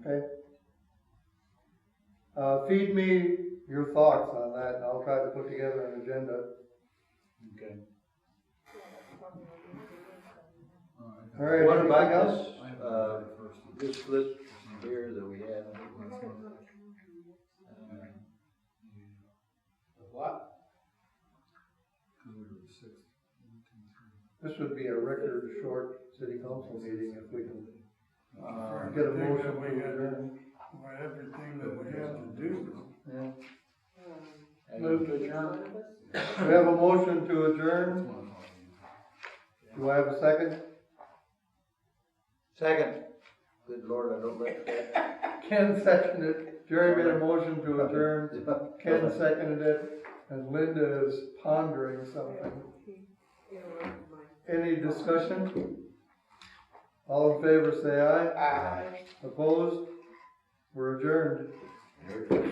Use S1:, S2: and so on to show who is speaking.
S1: Okay. Uh, feed me your thoughts on that, and I'll try to put together an agenda.
S2: Okay.
S1: All right,
S2: What
S1: anybody
S2: about
S1: else?
S2: this, uh, this list here that we have? What?
S1: This would be a record short city council meeting if we can.
S2: Uh,
S1: Get a motion.
S3: We had, we had everything that we had to do.
S1: Yeah.
S2: move to adjourn?
S1: We have a motion to adjourn. Do I have a second?
S2: Second. Good lord, I don't like that.
S1: Ken seconded, it. Jerry made a motion to adjourn, Ken seconded it, and Linda is pondering something. Any discussion? All in favor, say aye. Aye. Opposed? We're adjourned.
S2: Very good.